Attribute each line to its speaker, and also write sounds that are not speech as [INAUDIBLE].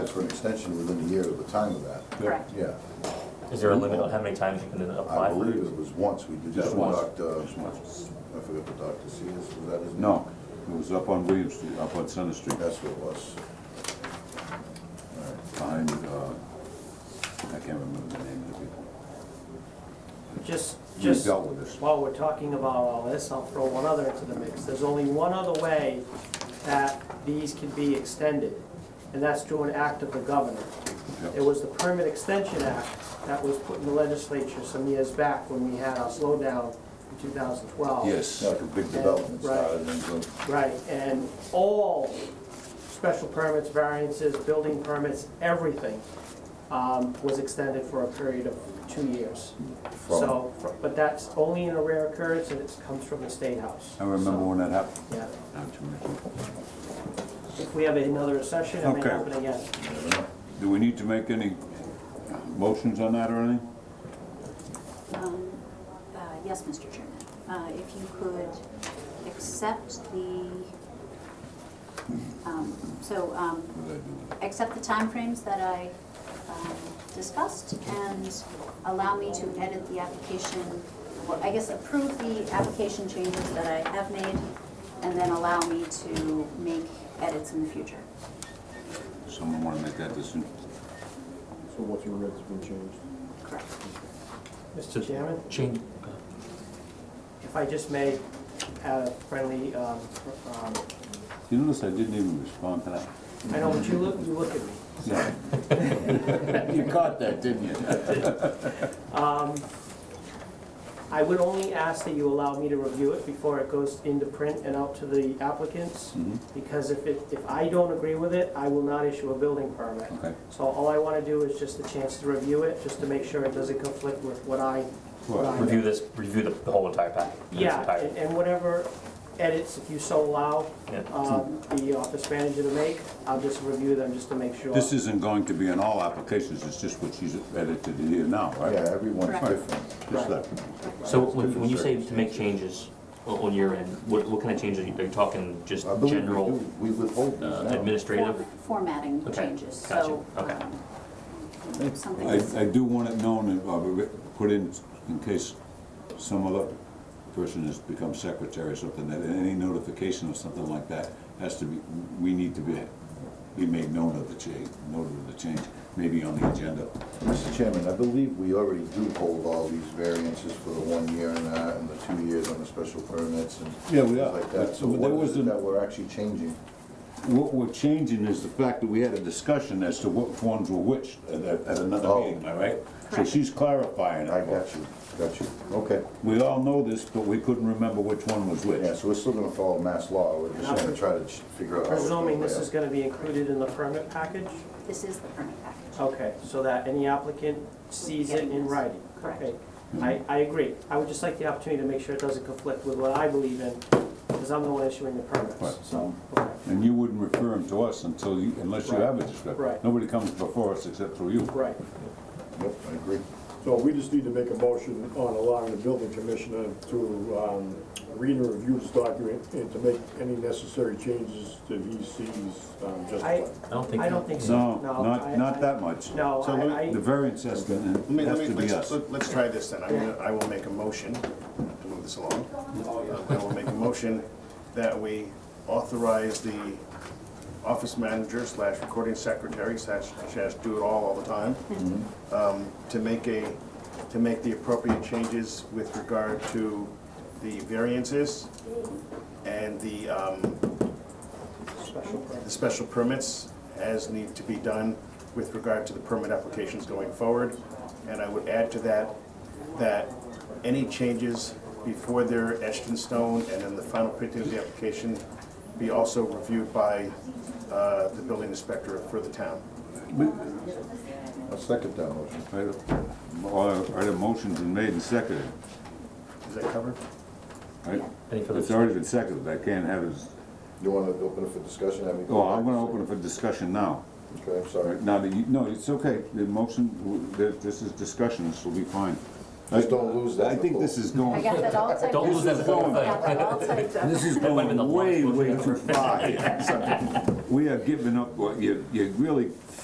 Speaker 1: for an extension within a year of the time of that.
Speaker 2: Correct.
Speaker 1: Yeah,
Speaker 3: Is there a limit on how many times you can
Speaker 1: I
Speaker 3: apply for
Speaker 1: believe
Speaker 3: it?
Speaker 1: it was once, we did
Speaker 4: Just
Speaker 1: that with
Speaker 4: once.
Speaker 1: Dr., I forget the Dr. Sears, was that his name?
Speaker 4: No, it was up on William Street, up on Center Street,
Speaker 1: That's what it was.
Speaker 4: behind, uh, I can't remember the name of the people.
Speaker 5: Just,
Speaker 4: We
Speaker 5: just
Speaker 4: dealt with this.
Speaker 5: while we're talking about all this, I'll throw one other into the mix. There's only one other way that these can be extended, and that's through an act of the governor.
Speaker 4: Yep.
Speaker 5: It was the Permit Extension Act that was put in the legislature some years back when we had our slowdown in 2012.
Speaker 4: Yes.
Speaker 1: Like a big development
Speaker 5: Right.
Speaker 1: started, and so,
Speaker 5: Right, and all special permits, variances, building permits, everything um, was extended for a period of two years. So, but that's only in a rare occurrence, and it comes from the State House.
Speaker 4: I remember when that happened.
Speaker 5: Yeah,
Speaker 4: Not too much.
Speaker 5: if we have another session, it may
Speaker 4: Okay.
Speaker 5: happen again.
Speaker 4: Do we need to make any motions on that or anything?
Speaker 2: Um, uh, Yes, Mr. Chairman, Uh, if you could accept the, um, so, um,
Speaker 4: What did I do?
Speaker 2: accept the timeframes that I um, discussed and allow me to edit the application, or I guess approve the application changes that I have made, and then allow me to make edits in the future.
Speaker 4: Someone wanna make that decision?
Speaker 6: So what's your rate's been changed?
Speaker 2: Correct.
Speaker 5: Mr. Chairman,
Speaker 3: Change,
Speaker 5: if I just may have a friendly, um, um,
Speaker 4: You notice I didn't even respond to that?
Speaker 5: I know what you look, you look at me.
Speaker 4: Yeah. [LAUGHS] You caught that, didn't you?
Speaker 5: Um, I would only ask that you allow me to review it before it goes into print and out to the applicants, because if it, if I don't agree with it, I will not issue a building permit.
Speaker 4: Okay.
Speaker 5: So all I want to do is just a chance to review it, just to make sure it doesn't conflict with what I, what I
Speaker 3: review this, review the the whole entire package.
Speaker 5: yeah, and- and whatever edits, if you so allow,
Speaker 3: Yeah.
Speaker 5: um, the office manager to make, I'll just review them just to make sure.
Speaker 4: This isn't going to be in all applications, it's just what she's edited here now,
Speaker 1: yeah,
Speaker 4: right?
Speaker 1: everyone's
Speaker 2: Correct.
Speaker 1: different.
Speaker 4: Just that.
Speaker 3: So when when you say to make changes on on your end, what, what kind of changes, are you talking just
Speaker 1: I believe we
Speaker 3: general
Speaker 1: do, we withhold these
Speaker 3: uh,
Speaker 1: now.
Speaker 3: administrative?
Speaker 2: Form- Formatting
Speaker 3: Okay,
Speaker 2: changes,
Speaker 3: gotcha,
Speaker 2: so.
Speaker 3: okay.
Speaker 2: um, Something.
Speaker 4: I, I do want it known and uh, re- put in, in case some other person has become secretary or something, that any notification or something like that has to be, we need to be, be made known of the change, note of the change, maybe on the agenda.
Speaker 1: Mr. Chairman, I believe we already do hold all these variances for the one year and that, and the two years on the special permits and
Speaker 4: Yeah,
Speaker 1: things
Speaker 4: we are.
Speaker 1: like that. So
Speaker 4: But there
Speaker 1: what
Speaker 4: was
Speaker 1: is it
Speaker 4: an-
Speaker 1: that we're actually changing?
Speaker 4: What we're changing is the fact that we had a discussion as to what forms were which at, at at another
Speaker 1: Oh.
Speaker 4: meeting, all right? So
Speaker 2: Correct.
Speaker 4: she's clarifying
Speaker 1: I
Speaker 4: it.
Speaker 1: got you, got you. Okay.
Speaker 4: We all know this, but we couldn't remember which one was which.
Speaker 1: Yeah, so we're still gonna follow mass law, we're just gonna try to ch- figure out. how it's gonna
Speaker 5: Presuming this
Speaker 1: play
Speaker 5: is gonna be included in the permit package?
Speaker 2: This is the permit package.
Speaker 5: Okay, so that any applicant sees it in writing?
Speaker 2: Correct.
Speaker 5: Okay. I, I agree. I would just like the opportunity to make sure it doesn't conflict with what I believe in, because I'm the one issuing the
Speaker 4: Right.
Speaker 5: permits, so. okay.
Speaker 4: And you wouldn't refer him to us until you, unless you
Speaker 5: Right.
Speaker 4: have a description.
Speaker 5: Right.
Speaker 4: Nobody comes before us except through you.
Speaker 5: Right.
Speaker 1: out. Yep, I agree.
Speaker 6: So we just need to make a motion on allowing the building commissioner to um, read and review this document and to make any necessary changes that he sees um,
Speaker 5: I,
Speaker 6: justified.
Speaker 3: I don't think.
Speaker 5: I don't think so.
Speaker 4: No,
Speaker 5: I-
Speaker 4: not,
Speaker 5: I-
Speaker 4: not that much.
Speaker 5: No,
Speaker 7: So
Speaker 5: I, I,
Speaker 4: The variance has to, has
Speaker 7: Let me, let me,
Speaker 4: to be
Speaker 7: let's,
Speaker 4: us.
Speaker 7: let- let's try this then. I'm gonna, I will make a motion, to move this along. I will make a motion that we authorize the office manager slash recording secretary slash, slash do it all all the time,
Speaker 4: Mm-hmm.
Speaker 7: um, to make a, to make the appropriate changes with regard to the variances and the, um, the special permits as need to be done with regard to the permit applications going forward. And I would add to that, that any changes before they're etched in stone and in the final printing of the application be also reviewed by uh, the building inspector for the town.
Speaker 1: I'll second that motion.
Speaker 4: Right, all right, a motion's been made and seconded,
Speaker 7: Is that covered?
Speaker 4: right?
Speaker 3: Any further
Speaker 4: It's already been seconded, I can't have it,
Speaker 1: You wanna open it for discussion? Have me go
Speaker 4: oh, I'm
Speaker 1: back
Speaker 4: gonna
Speaker 1: and
Speaker 4: open it for discussion now.
Speaker 1: say- Okay, I'm
Speaker 4: All
Speaker 1: sorry.
Speaker 4: right, now that you, no, it's okay, the motion, th- this is discussion, this will be fine.
Speaker 1: Just don't lose that.
Speaker 4: I think this is going.
Speaker 2: I got that all typed up.
Speaker 3: Don't
Speaker 2: [LAUGHS]
Speaker 3: lose that whole
Speaker 2: I got that all typed
Speaker 3: [LAUGHS]
Speaker 2: up.
Speaker 4: This is
Speaker 3: That might have been the
Speaker 4: going way,
Speaker 3: longest [LAUGHS]
Speaker 4: way
Speaker 3: motion
Speaker 4: too far. We are giving up, what you, you really